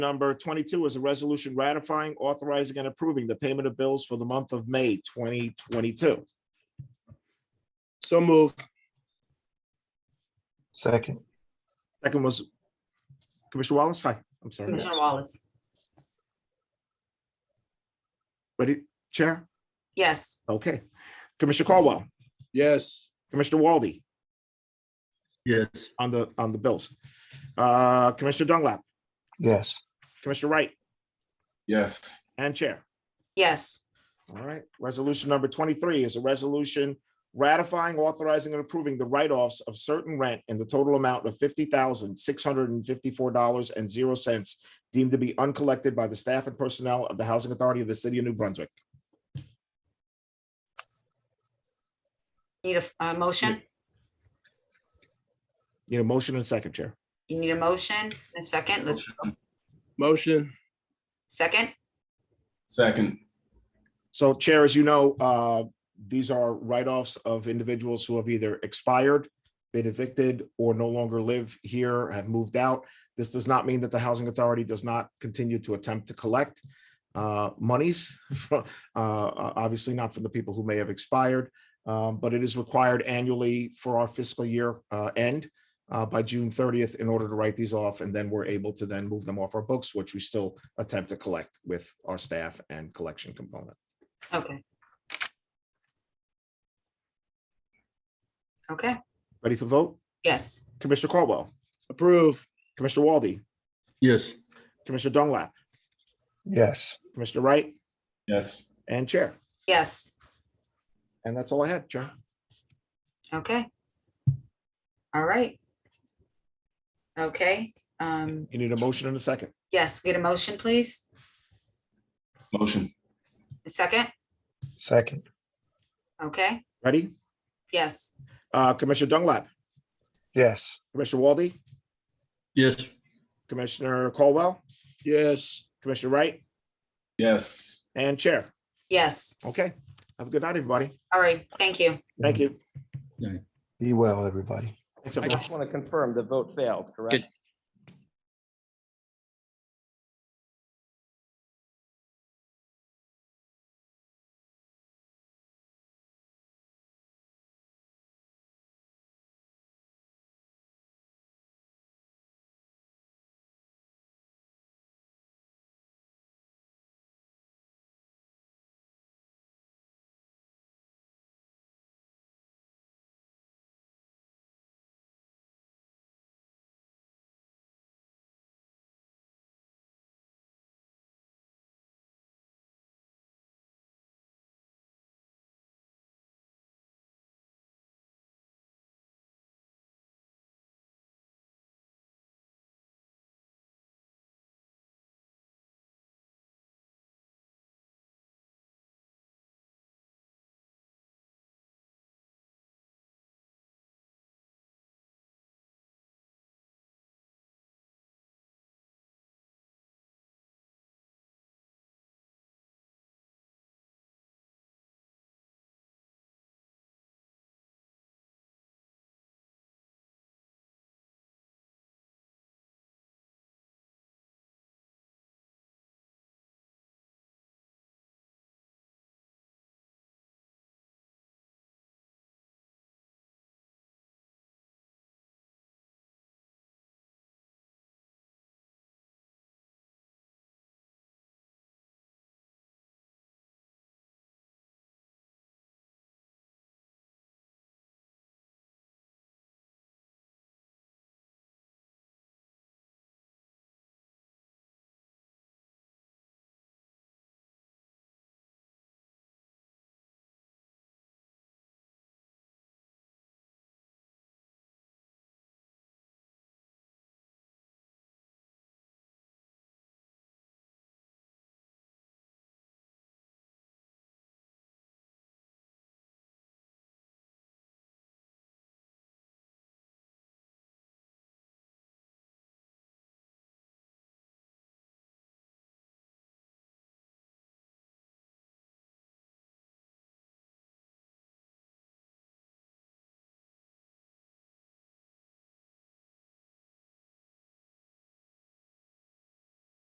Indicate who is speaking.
Speaker 1: Number 22 is a resolution ratifying, authorizing, and approving the payment of bills for the month of May 2022.
Speaker 2: So moved.
Speaker 3: Second,
Speaker 1: Second was Commissioner Wallace. Hi, I'm sorry.
Speaker 4: Commissioner Wallace.
Speaker 1: Ready, Chair?
Speaker 4: Yes.
Speaker 1: Okay. Commissioner Caldwell,
Speaker 2: Yes.
Speaker 1: Commissioner Walde
Speaker 5: yes,
Speaker 1: on the, on the bills. Uh, Commissioner Dunlap,
Speaker 3: yes,
Speaker 1: Commissioner Wright,
Speaker 6: yes,
Speaker 1: and Chair.
Speaker 4: Yes.
Speaker 1: All right. Resolution number 23 is a resolution ratifying, authorizing, and approving the write-offs of certain rent in the total amount of $50,654.00 deemed to be uncollected by the staff and personnel of the Housing Authority of the City of New Brunswick.
Speaker 4: Need a, a motion?
Speaker 1: Need a motion and second, Chair.
Speaker 4: You need a motion, and a second, let's,
Speaker 2: Motion.
Speaker 4: second?
Speaker 6: second,
Speaker 1: So Chair, as you know, uh, these are write-offs of individuals who have either expired, been evicted, or no longer live here, have moved out. This does not mean that the Housing Authority does not continue to attempt to collect uh, monies, fro- uh, uh, obviously not from the people who may have expired, um, but it is required annually for our fiscal year uh, end uh, by June 30th in order to write these off, and then we're able to then move them off our books, which we still attempt to collect with our staff and collection component.
Speaker 4: Okay. Okay,
Speaker 1: Ready for vote?
Speaker 4: yes,
Speaker 1: Commissioner Caldwell,
Speaker 2: Approve.
Speaker 1: Commissioner Walde,
Speaker 5: yes,
Speaker 1: Commissioner Dunlap,
Speaker 3: yes,
Speaker 1: Commissioner Wright,
Speaker 6: yes,
Speaker 1: and Chair.
Speaker 4: yes,
Speaker 1: And that's all I had, Chair.
Speaker 4: okay. All right. Okay, um,
Speaker 1: You need a motion in a second.
Speaker 4: yes, get a motion, please,
Speaker 6: motion,
Speaker 4: a second,
Speaker 3: second,
Speaker 4: okay,
Speaker 1: Ready?
Speaker 4: yes,
Speaker 1: Uh, Commissioner Dunlap,
Speaker 3: yes,
Speaker 1: Commissioner Walde,
Speaker 5: yes,
Speaker 1: Commissioner Caldwell,
Speaker 2: Yes.
Speaker 1: Commissioner Wright,
Speaker 6: yes,
Speaker 1: and Chair.
Speaker 4: yes,
Speaker 1: Okay. Have a good night, everybody.
Speaker 4: all right, thank you.
Speaker 1: Thank you.
Speaker 3: be well, everybody.
Speaker 1: Thanks, everyone.
Speaker 7: I just want to confirm the vote failed, correct?